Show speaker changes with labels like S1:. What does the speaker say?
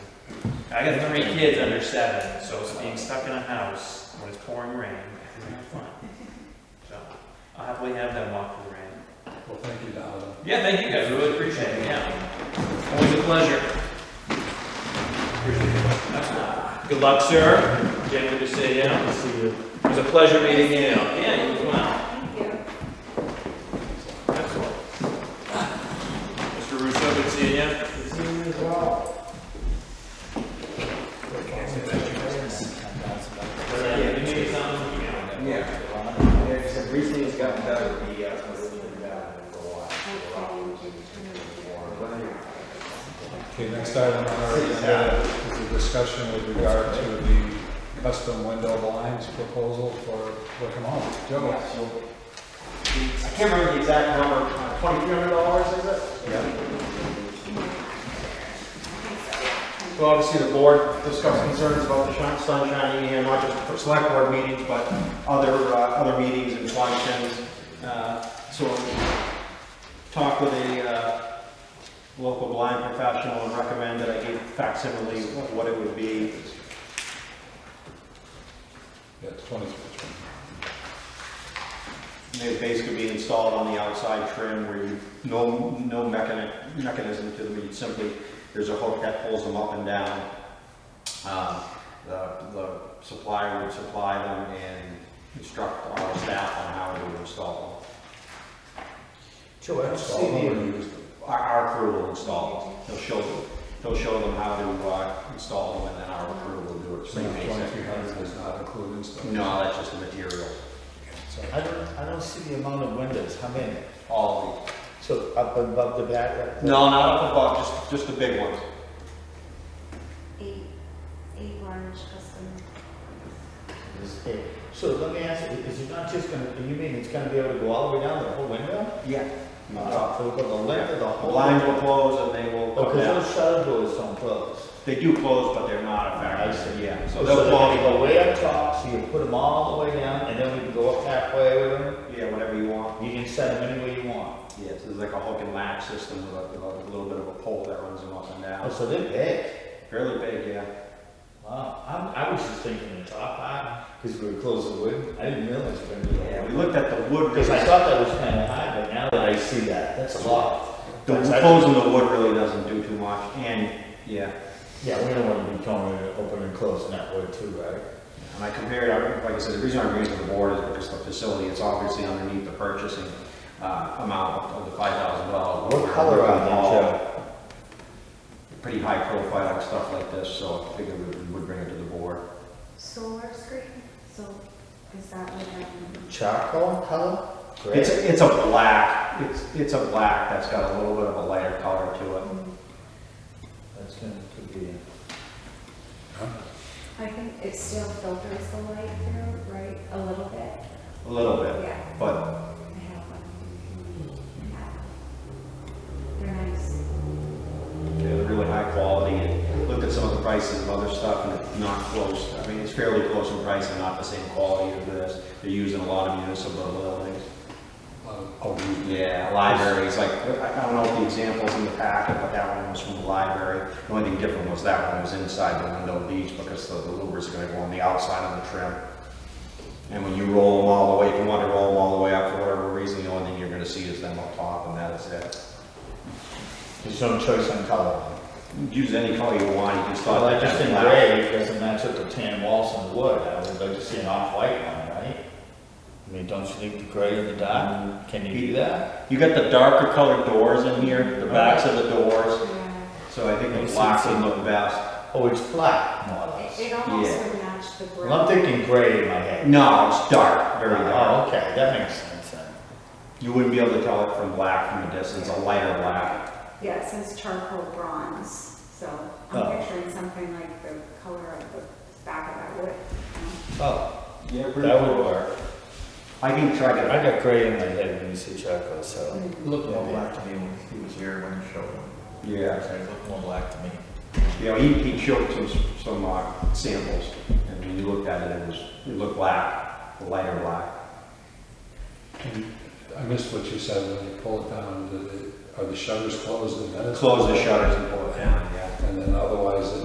S1: I got three kids under seven, so it's being stuck in a house when it's pouring rain, it's not fun. So, I'll happily have them walk through the rain.
S2: Well, thank you, Donna.
S1: Yeah, thank you guys, I really appreciate it, yeah. Always a pleasure. Good luck, sir. Jim, good to see you.
S2: Good to see you.
S1: It was a pleasure meeting you. Yeah, you as well.
S3: Thank you.
S1: Excellent. Mr. Russo, good to see you.
S2: Good to see you as well.
S1: Yeah, you need something, you know.
S4: Yeah, it's, recently it's gotten better, the, uh, it's been bad for a while.
S2: Okay, next item on our agenda is a discussion with regard to the custom window blinds proposal for Wickham Hall. Joe?
S4: I can't remember the exact number, twenty-three hundred dollars, is it? So obviously the board discussed concerns about the shine- sun shining in, not just for select board meetings, but other, uh, other meetings and functions. Uh, So talked with a uh, local blind professional and recommended I give facsimile of what it would be.
S2: Yeah, it's 23.
S4: They basically be installed on the outside trim where you, no, no mechani- mechanism to them, you simply, there's a hook that pulls them up and down. Um, The, the supplier would supply them and instruct our staff on how to install
S5: Joe, I don't
S2: Install
S5: see
S2: them or
S5: the,
S2: use them?
S4: them. Our, our crew will install them, they'll show them, they'll show them how to uh, install them and then our crew will do it.
S2: So
S4: Pretty basic.
S2: 2300 does not include install.
S4: No, that's just the material,
S2: So
S5: I don't, I don't see the amount of windows, how many?
S4: all
S5: So up above the back,
S4: the,
S5: right?
S4: no, not up above, just, just the big ones.
S3: Eight, eight large custom.
S5: Is it- So let me ask you, is it not just gonna, you mean it's gonna be able to go all the way down the whole window?
S4: Yeah.
S5: Uh, So the length of the
S4: The
S5: whole?
S4: blinds will
S5: window?
S4: close and they will
S5: Oh,
S4: come
S5: cause
S4: down.
S5: those shutter doors don't close.
S4: They do close, but they're not
S5: I
S4: effective.
S5: see.
S4: Yeah, so
S5: So
S4: they'll
S5: they're gonna
S4: close,
S5: go way up top, so you put them all the way down and then we can go up halfway with them?
S4: yeah, whatever you want.
S5: You can set them anywhere you want.
S4: Yeah, so there's like a hook and latch system with a, with a little bit of a pole that runs them up and
S5: Oh,
S4: down.
S5: so they're big.
S4: Fairly big, yeah.
S5: Wow, I'm, I was just thinking the top high, because we were close to wood. I didn't realize we were gonna do that.
S4: Yeah, we looked at the wood,
S5: Because I
S4: because
S5: thought that was kind of high, but now that I see that, that's a lot.
S4: the
S5: That's
S4: closing the wood really doesn't do too much, and, yeah.
S5: actually- Yeah, we don't want to be towing it open and closing that way too, right?
S4: And I compared, I- like I said, the reason I bring it to the board is because the facility, it's obviously underneath the purchasing, uh, amount of the five thousand dollars.
S5: What color are they, Joe?
S4: pretty high profile stuff like this, so I figured we would bring it to the board.
S3: Solar screen, so is that what I'm?
S5: Charcoal color?
S4: It's,
S5: Gray?
S4: it's a black, it's, it's a black that's got a little bit of a lighter color to it.
S5: That's gonna, could be,
S3: I think it still filters the light through, right, a little bit?
S4: A little bit,
S3: Yeah,
S4: but
S3: I have one. They're nice.
S4: they're really high quality. And Looked at some of the prices of other stuff and it's not close. I mean, it's fairly close in price and not the same quality as this. They're using a lot of municipal buildings.
S5: Oh,
S2: I'll read it.
S4: Yeah, libraries, like, I I don't know if the examples in the packet, but that one was from the library. The only thing different was that one was inside the window of each because the the louvers are gonna go on the outside of the trim. And when you roll them all the way, if you wanna roll them all the way up for whatever reason, the only thing you're gonna see is them up top and that is it.
S5: there's no choice on color.
S4: Use any color you want, you can start.
S5: Well, I
S4: that
S5: just think
S4: black.
S5: gray, because then that's what the tan walls and wood, I would like to see an off-white one, right? I mean, don't you think the gray in the dark, can you do that?
S4: You got the darker colored doors in here, the backs of the doors,
S3: Yeah.
S4: so I think
S5: Makes
S4: the
S5: sense.
S4: black would look best.
S5: Oh, it's black, more or
S3: It-
S5: less.
S3: It almost
S4: Yeah.
S3: would match the brick.
S5: Well, I'm thinking gray in my head.
S4: No, it's dark, very dark.
S5: Oh, okay, that makes sense then.
S4: You wouldn't be able to tell it from black from a distance, a lighter black.
S3: Yeah, it says charcoal bronze, so
S5: Oh.
S3: I'm picturing something like the color of the back of that wood. you know?
S5: Oh,
S4: Yeah,
S5: that would work.
S4: I can try
S5: I
S4: to.
S5: got gray in my head when you said charcoal, so.
S6: Looked more black to me when he was here when he showed him.
S4: Yeah,
S6: It looked more black to me.
S4: you know, he, he showed some, some uh, samples, and when you looked at it, it was, it looked black, a lighter black.
S2: And I missed what you said when you pulled it down. Did it- Are the shutters closed and then it's?
S4: Close the shutters and pull it down, yeah.
S2: And then otherwise it